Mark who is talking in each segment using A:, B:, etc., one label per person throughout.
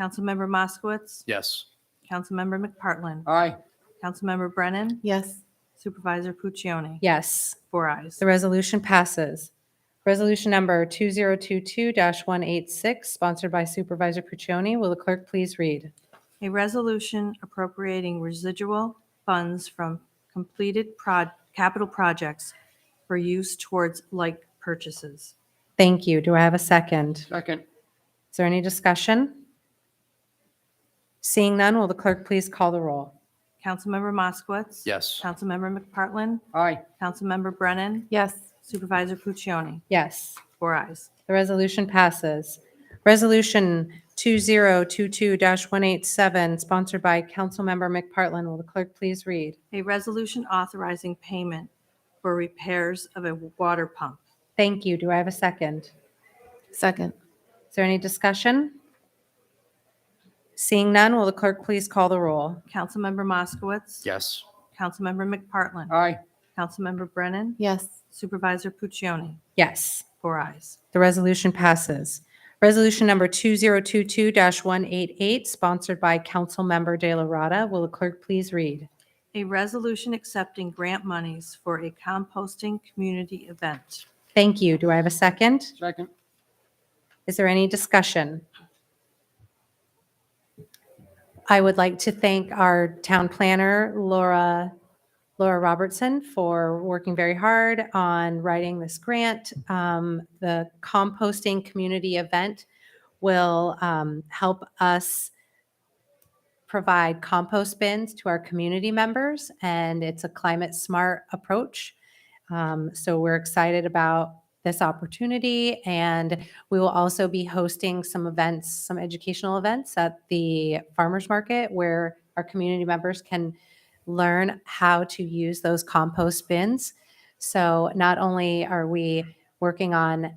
A: Councilmember Moskowitz.
B: Yes.
A: Councilmember McPartlin.
C: Aye.
A: Councilmember Brennan.
D: Yes.
A: Supervisor Puccioni.
E: Yes,
A: Four eyes.
E: the resolution passes. Resolution number 2022-186, sponsored by Supervisor Puccioni. Will the clerk please read?
A: A resolution appropriating residual funds from completed prod, capital projects for use towards like purchases.
E: Thank you. Do I have a second?
C: Second.
E: Is there any discussion? Seeing none, will the clerk please call the roll?
A: Councilmember Moskowitz.
B: Yes.
A: Councilmember McPartlin.
C: Aye.
A: Councilmember Brennan.
D: Yes.
A: Supervisor Puccioni.
E: Yes,
A: Four eyes.
E: the resolution passes. Resolution 2022-187, sponsored by Councilmember McPartlin. Will the clerk please read?
A: A resolution authorizing payment for repairs of a water pump.
E: Thank you. Do I have a second?
D: Second.
E: Is there any discussion? Seeing none, will the clerk please call the roll?
A: Councilmember Moskowitz.
B: Yes.
A: Councilmember McPartlin.
C: Aye.
A: Councilmember Brennan.
D: Yes.
A: Supervisor Puccioni.
E: Yes,
A: Four eyes.
E: the resolution passes. Resolution number 2022-188, sponsored by Councilmember De La Rada. Will the clerk please read?
A: A resolution accepting grant monies for a composting community event.
E: Thank you. Do I have a second?
C: Second.
E: Is there any discussion? I would like to thank our town planner, Laura, Laura Robertson, for working very hard on writing this grant. Um, The composting community event will um, help us provide compost bins to our community members, and it's a climate-smart approach. Um, So we're excited about this opportunity, and we will also be hosting some events, some educational events at the farmers market where our community members can learn how to use those compost bins. So not only are we working on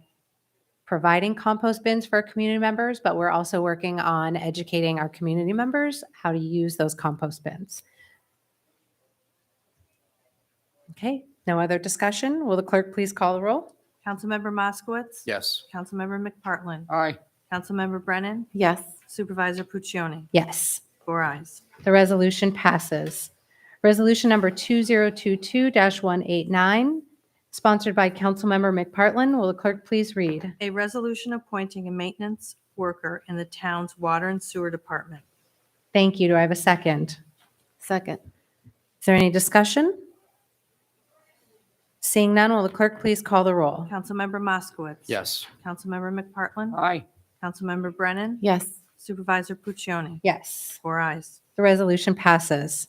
E: providing compost bins for our community members, but we're also working on educating our community members how to use those compost bins. Okay, no other discussion? Will the clerk please call the roll?
A: Councilmember Moskowitz.
B: Yes.
A: Councilmember McPartlin.
C: Aye.
A: Councilmember Brennan.
D: Yes.
A: Supervisor Puccioni.
E: Yes.
A: Four eyes.
E: The resolution passes. Resolution number 2022-189, sponsored by Councilmember McPartlin. Will the clerk please read?
A: A resolution appointing a maintenance worker in the town's water and sewer department.
E: Thank you. Do I have a second?
D: Second.
E: Is there any discussion? Seeing none, will the clerk please call the roll?
A: Councilmember Moskowitz.
B: Yes.
A: Councilmember McPartlin.
C: Aye.
A: Councilmember Brennan.
D: Yes.
A: Supervisor Puccioni.
E: Yes.
A: Four eyes.
E: The resolution passes.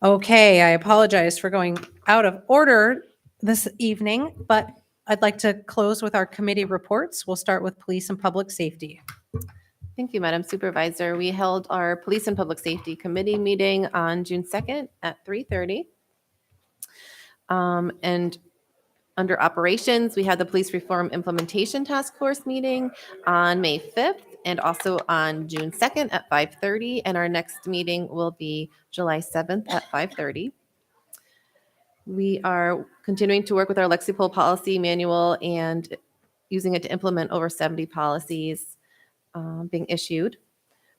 E: Okay, I apologize for going out of order this evening, but I'd like to close with our committee reports. We'll start with police and public safety.
D: Thank you, Madam Supervisor. We held our Police and Public Safety Committee meeting on June 2nd at 3:30. Um, And under operations, we had the Police Reform Implementation Task Force meeting on May 5th and also on June 2nd at 5:30. And our next meeting will be July 7th at 5:30. We are continuing to work with our Lexipol policy manual and using it to implement over 70 policies um, being issued.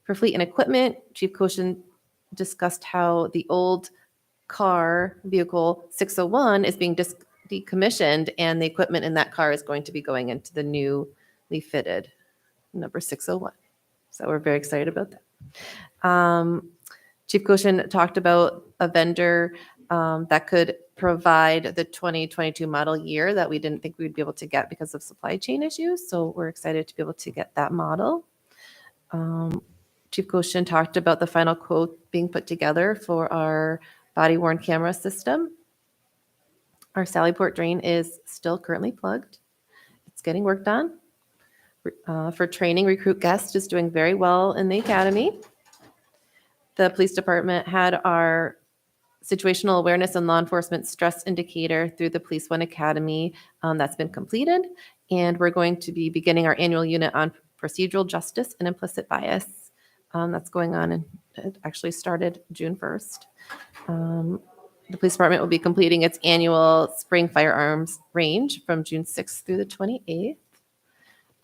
D: For fleet and equipment, Chief Koshin discussed how the old car vehicle 601 is being dis- decommissioned and the equipment in that car is going to be going into the newly fitted number 601. So we're very excited about that. Um, Chief Koshin talked about a vendor um, that could provide the 2022 model year that we didn't think we'd be able to get because of supply chain issues. So we're excited to be able to get that model. Um, Chief Koshin talked about the final quote being put together for our body worn camera system. Our Sallyport drain is still currently plugged. It's getting worked on. Uh, for training, recruit guest is doing very well in the academy. The police department had our situational awareness and law enforcement stress indicator through the Police One Academy. um, that's been completed. And we're going to be beginning our annual unit on procedural justice and implicit bias. um, that's going on and it actually started June 1st. Um, the police department will be completing its annual spring firearms range from June 6th through the 28th.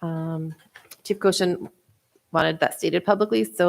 D: Um, Chief Goshen wanted that stated publicly. So